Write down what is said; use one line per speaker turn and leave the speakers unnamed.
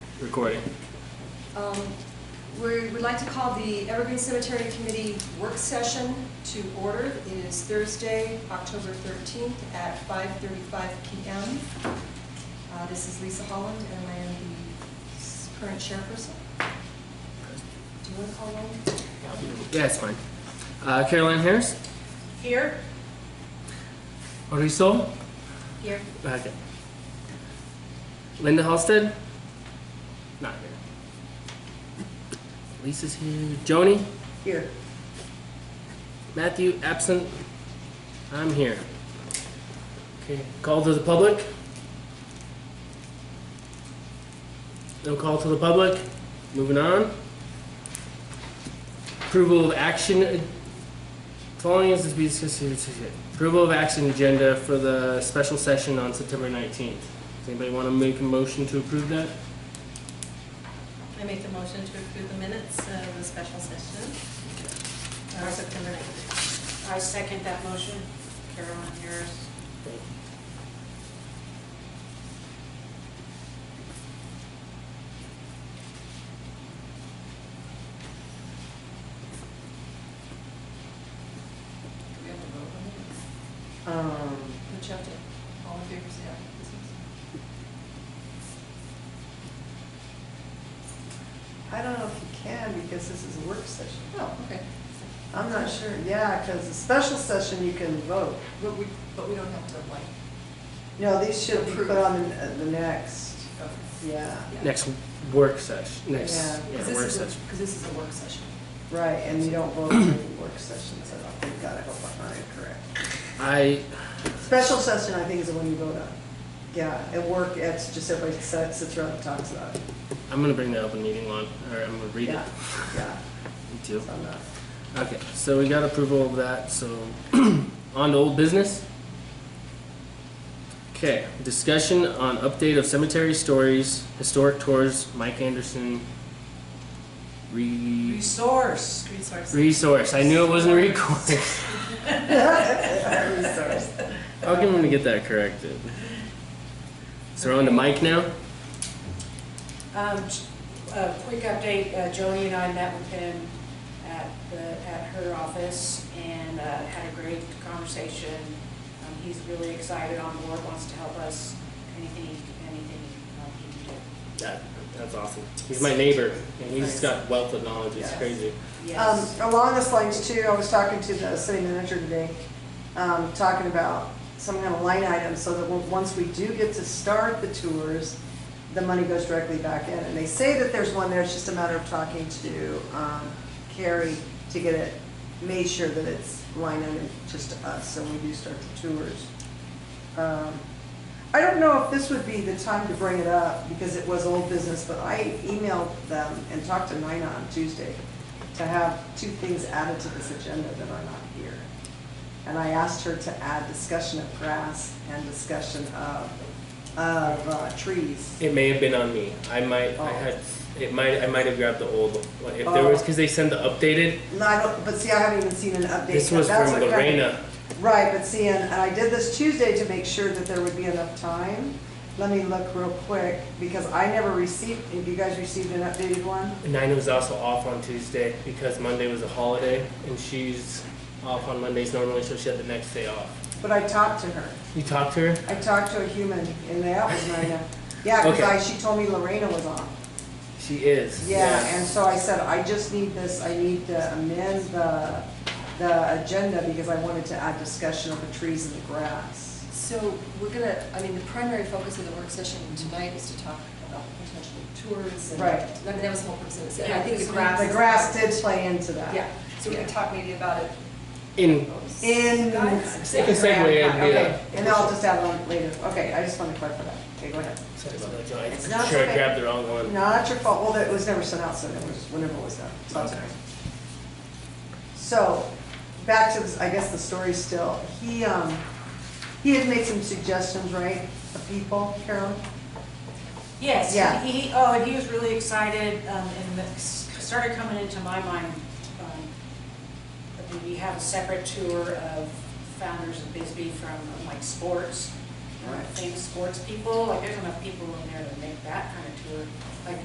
Recording.
Um, We would like to call the Evergreen Cemetery Committee work session to order. It is Thursday, October 13th at 5:35 PM. Uh, This is Lisa Holland, and I am the s- current chairperson. Do you want to call on?
Yeah, it's fine. Uh, Caroline Harris,
Here.
Audrey Sol,
Here.
okay. Linda Halstead, not here. Lisa's here. Joni,
Here.
Matthew, absent. I'm here. Okay, call to the public. No call to the public. Moving on. Approval of action. Following is to be discussed. here. Approval of action agenda for the special session on September 19th. Does anybody want to make a motion to approve that?
I make the motion to approve the minutes of the special session on September 9th. I second that motion. Carolyn Harris.
Do we have a vote on it?
Um,
Which have to, all in favor, say aye.
I don't know if you can because this is a work session.
Oh, okay.
I'm not sure, yeah, because a special session you can vote.
But we, but we don't have to like,
No, these should be
Approve.
put on the, uh, the next,
okay.
yeah,
Next work session, next,
Yeah.
yeah, work session.
Because this is a work session.
right, and you don't vote in work sessions, I don't think, God, I hope I'm not incorrect.
I,
Special session, I think, is the one you vote on. Yeah, at work, it's just everybody sits, sits around and talks about it.
I'm gonna bring the open meeting law, or I'm gonna read it.
Yeah, yeah,
Me too.
so I'm not.
Okay, so we got approval of that, so on to old business. Okay, discussion on update of cemetery stories, historic tours, Mike Anderson. Re-
Resource.
Resource.
resource, I knew it wasn't recourse.
Resource.
How come I'm gonna get that corrected? So we're on to Mike now?
Um, j- a quick update, uh, Joni and I met with him at the, at her office and, uh, had a great conversation. Um, he's really excited on board, wants to help us, anything, he- anything um, he can
That, that's awesome. He's my neighbor, and he's got wealth of knowledge, it's
Yes.
crazy.
do.
Um,
Yes.
Along those lines too, I was talking to the city manager today, um, talking about some kind of line item so that when- once we do get to start the tours, the money goes directly back in. And they say that there's one there, it's just a matter of talking to um, Carrie to get it, made sure that it's line item just to us, so we do start the tours. Um, I don't know if this would be the time to bring it up because it was old business, but I emailed them and talked to Nina on Tuesday to have two things added to this agenda that are not here. And I asked her to add discussion of grass and discussion of, of uh, trees.
It may have been on me. I might, I
Oh.
had, it might, I might have grabbed the old, one. if there was, because they sent the updated.
And I don't, but see, I haven't even seen an update.
This
but
was
that's
from
what kind of-
Lorena.
Right, but see, and and I did this Tuesday to make sure that there would be enough time. Let me look real quick, because I never received, have you guys received an updated one?
Nina was also off on Tuesday because Monday was a holiday, and she's off on Mondays normally, so she had the next day off.
But I talked to her.
You talked to her?
I talked to a human, and that was Nina. Yeah, because
Okay.
I, she told me Lorena was on.
She is.
Yeah, and so I said, I just need this, I need to amend the, the agenda because I wanted to add discussion of the trees and the grass.
So we're gonna, I mean, the primary focus of the work session tonight is to talk about potential tours and.
Right.
I mean, that was the whole purpose of it.
Yeah,
I think
this
the
one-
grass.
The grass did play into that.
Yeah, so we can talk maybe about it.
In,
In.
It can segue in, yeah.
Okay, and then I'll just add it on later. Okay, I just wanted to clarify that. Okay, go ahead.
sorry about that, John. I'm
It's not
sure I
okay.
grabbed the wrong one.
No, that's your fault. Well, that- it was never sent out, so it was, whenever it was done. So that's okay. So, back to, this- I guess the story still. He, um, he had made some suggestions, right, of people, Carol?
Yes,
Yeah.
he, he- oh, and he was really excited, um, and that s- started coming into my mind, um, that we have a separate tour of founders of Bisbee from um, like sports, uh,
Right.
famous sports people, like there's enough people in there to make that kind of tour.